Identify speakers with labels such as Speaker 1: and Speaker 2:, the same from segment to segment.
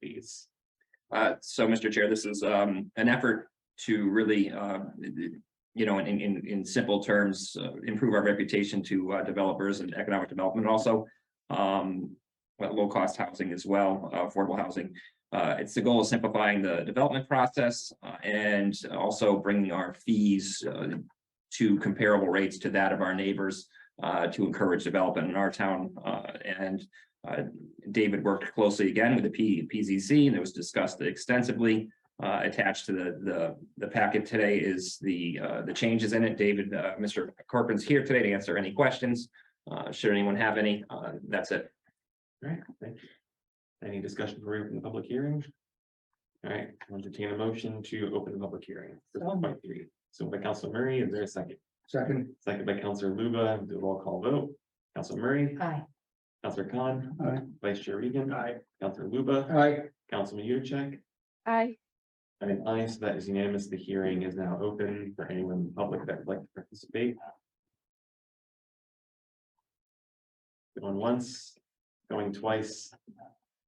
Speaker 1: committees. Uh, so, Mr. Chair, this is, um, an effort to really, uh, you know, in, in, in simple terms, uh, improve our reputation to, uh, developers and economic development also. Um, but low-cost housing as well, uh, affordable housing. Uh, it's the goal of simplifying the development process, uh, and also bringing our fees, uh, to comparable rates to that of our neighbors, uh, to encourage development in our town, uh, and uh, David worked closely again with the P, PZC, and it was discussed extensively. Uh, attached to the, the, the packet today is the, uh, the changes in it. David, uh, Mr. Corcoran's here today to answer any questions. Uh, should anyone have any, uh, that's it.
Speaker 2: All right, thank you. Any discussion for open the public hearing? All right, I'll entertain a motion to open the public hearing. for
Speaker 3: So moved.
Speaker 2: 5.3. So by Council Murray, is there a second?
Speaker 3: Second.
Speaker 2: Second by Councilor Luba, do a roll call vote. Council Murray,
Speaker 3: Aye.
Speaker 2: Councilor Khan,
Speaker 3: Aye.
Speaker 2: Vice Chair Regan. Aye. Councilor Luba,
Speaker 3: Aye.
Speaker 2: Councilman Yudichak.
Speaker 4: Aye.
Speaker 2: And an aye, so that is unanimous. The hearing is now open for anyone in the public that would like to participate. Going once, going twice.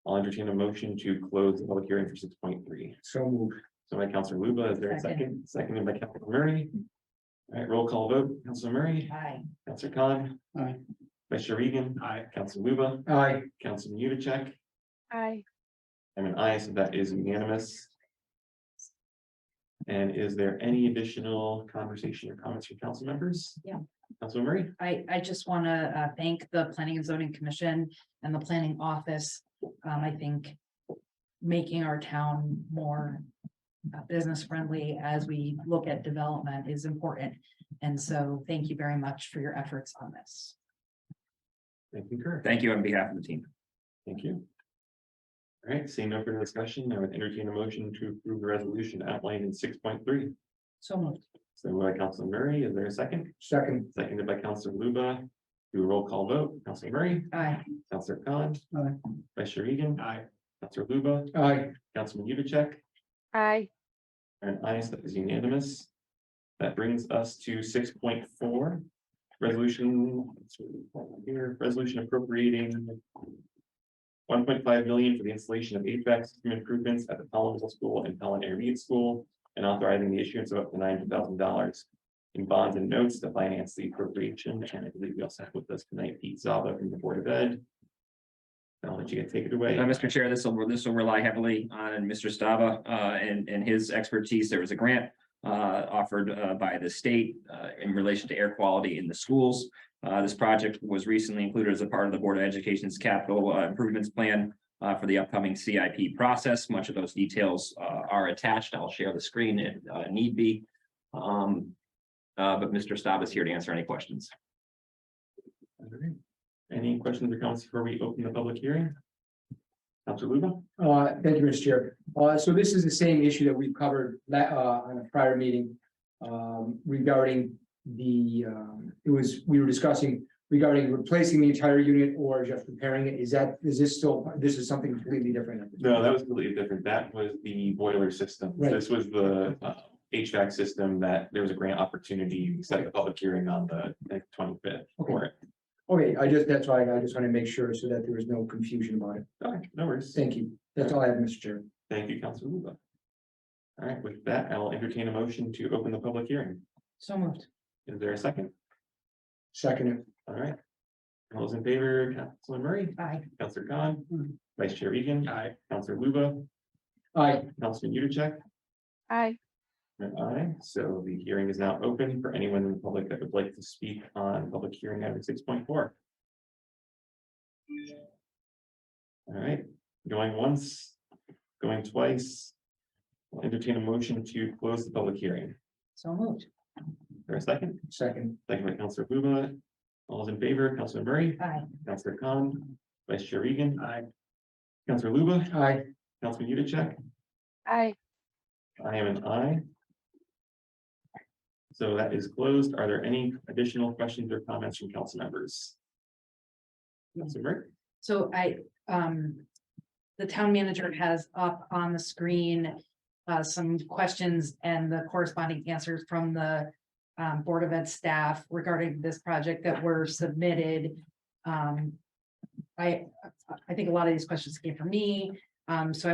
Speaker 2: I'll entertain a motion to close the public hearing for six point three.
Speaker 3: So moved.
Speaker 2: So by Counselor Luba, is there a second?
Speaker 3: Second.
Speaker 2: Seconded by Counselor Murray. All right, roll call vote. Counselor Murray,
Speaker 3: Aye.
Speaker 2: Counselor Khan,
Speaker 3: Aye.
Speaker 2: Vice Chair Regan. Aye. Counselor Luba,
Speaker 3: Aye.
Speaker 2: Councilman Yudichak.
Speaker 4: Aye.
Speaker 2: I'm an aye, so that is unanimous. And is there any additional conversation or comments from council members?
Speaker 5: Yeah.
Speaker 2: Council Murray,
Speaker 5: I, I just want to thank the Planning and Zoning Commission and the Planning Office. Um, I think making our town more business friendly as we look at development is important. And so thank you very much for your efforts on this.
Speaker 2: I concur.
Speaker 1: Thank you on behalf of the team.
Speaker 2: Thank you. All right, seeing no further discussion, I would entertain a motion to approve the resolution outlined in six point three.
Speaker 5: So moved.
Speaker 2: So by Council Murray, is there a second?
Speaker 3: Second.
Speaker 2: Seconded by Council Luba. Do a roll call vote. Council Murray,
Speaker 5: Aye.
Speaker 2: Council Khan,
Speaker 3: Aye.
Speaker 2: Vice Chair Regan. Aye. Council Luba,
Speaker 3: Aye.
Speaker 2: Councilman Yudichak.
Speaker 4: Aye.
Speaker 2: And I, so that is unanimous. That brings us to six point four, resolution, here, resolution appropriating one point five million for the installation of HVAC system improvements at the Pelham Middle School and Pelham Air Reed School and authorizing the issuance of up to nine thousand dollars in bonds and notes to finance the appropriation. And I believe we also have with us tonight Pete Zaba from the Board of Ed. I'll let you take it away.
Speaker 1: Uh, Mr. Chair, this will, this will rely heavily on Mr. Stava, uh, and, and his expertise. There was a grant uh, offered, uh, by the state, uh, in relation to air quality in the schools. Uh, this project was recently included as a part of the Board of Education's capital uh, improvements plan, uh, for the upcoming CIP process. Much of those details, uh, are attached. I'll share the screen if, uh, need be. Um, uh, but Mr. Stava is here to answer any questions.
Speaker 2: Alright. Any questions or comments before we open the public hearing? Council Luba?
Speaker 3: Uh, thank you, Mr. Chair. Uh, so this is the same issue that we've covered la- uh, on a prior meeting. Um, regarding the, um, it was, we were discussing regarding replacing the entire unit or just repairing it. Is that, is this still, this is something completely different?
Speaker 2: No, that was completely different. That was the boiler system.
Speaker 3: Right.
Speaker 2: This was the uh, HVAC system that there was a grant opportunity, we set the public hearing on the twenty fifth for it.
Speaker 3: Okay, I just, that's why I just want to make sure so that there was no confusion about it.
Speaker 2: Okay, no worries.
Speaker 3: Thank you. That's all I have, Mr. Chair.
Speaker 2: Thank you, Council Luba. All right, with that, I'll entertain a motion to open the public hearing.
Speaker 5: So moved.
Speaker 2: Is there a second?
Speaker 3: Second.
Speaker 2: All right. All those in favor, Councilor Murray,
Speaker 5: Aye.
Speaker 2: Councilor Khan, Vice Chair Regan,
Speaker 3: Aye.
Speaker 2: Councilor Luba,
Speaker 3: Aye.
Speaker 2: Councilman Yudichak,
Speaker 4: Aye.
Speaker 2: And I, so the hearing is now open for anyone in the public that would like to speak on public hearing item six point four. All right, going once, going twice. I'll Entertain a motion to close the public hearing.
Speaker 5: So moved.
Speaker 2: For a second,
Speaker 3: Second.
Speaker 2: second by Counselor Luba. All those in favor, Counselor Murray,
Speaker 5: Aye.
Speaker 2: Counselor Khan, Vice Chair Regan. Aye. Counselor Luba,
Speaker 3: Aye.
Speaker 2: Councilman Yudichak.
Speaker 4: Aye.
Speaker 2: I am an I. So that is closed. Are there any additional questions or comments from council members? Council Murray?
Speaker 5: So I, um, the town manager has up on the screen, uh, some questions and the corresponding answers from the um, Board of Ed staff regarding this project that were submitted. Um, I, I think a lot of these questions came from me, um, so I